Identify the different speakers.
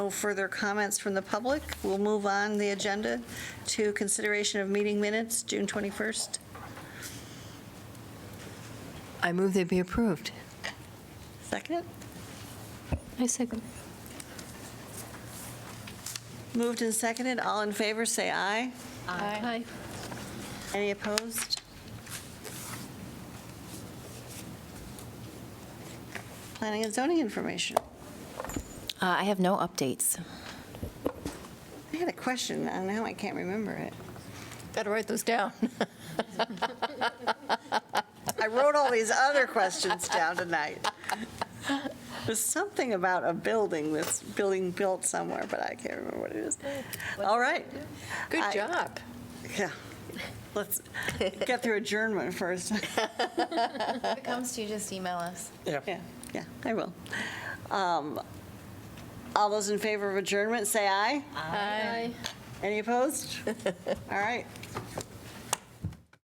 Speaker 1: No further comments from the public. We'll move on the agenda to consideration of meeting minutes, June 21st.
Speaker 2: I move they be approved.
Speaker 1: Second?
Speaker 2: I second.
Speaker 1: Moved and seconded. All in favor, say aye.
Speaker 2: Aye.
Speaker 1: Any opposed? Planning and zoning information.
Speaker 3: Uh, I have no updates.
Speaker 1: I had a question, and now I can't remember it.
Speaker 3: Got to write those down.
Speaker 1: I wrote all these other questions down tonight. There's something about a building, this building built somewhere, but I can't remember what it is. All right. I-
Speaker 3: Good job.
Speaker 1: Yeah. Let's get through adjournment first.
Speaker 3: If it comes to you, just email us.
Speaker 1: Yeah, yeah, I will. Um, All those in favor of adjournment, say aye.
Speaker 3: Aye.
Speaker 1: Any opposed? All right,